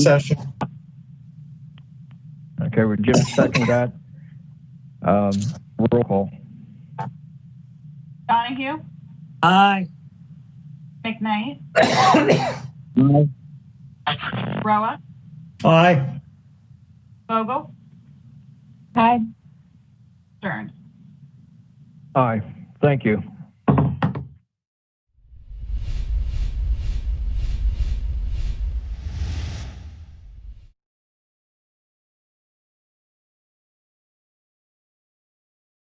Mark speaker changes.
Speaker 1: session.
Speaker 2: Okay, well, Jim seconded that. Um, roll call.
Speaker 3: Donahue,
Speaker 4: Aye.
Speaker 3: McKnight,
Speaker 2: Aye.
Speaker 3: Roa,
Speaker 1: Aye.
Speaker 3: Vogel,
Speaker 4: Aye.
Speaker 3: Stern.
Speaker 2: Aye, thank you.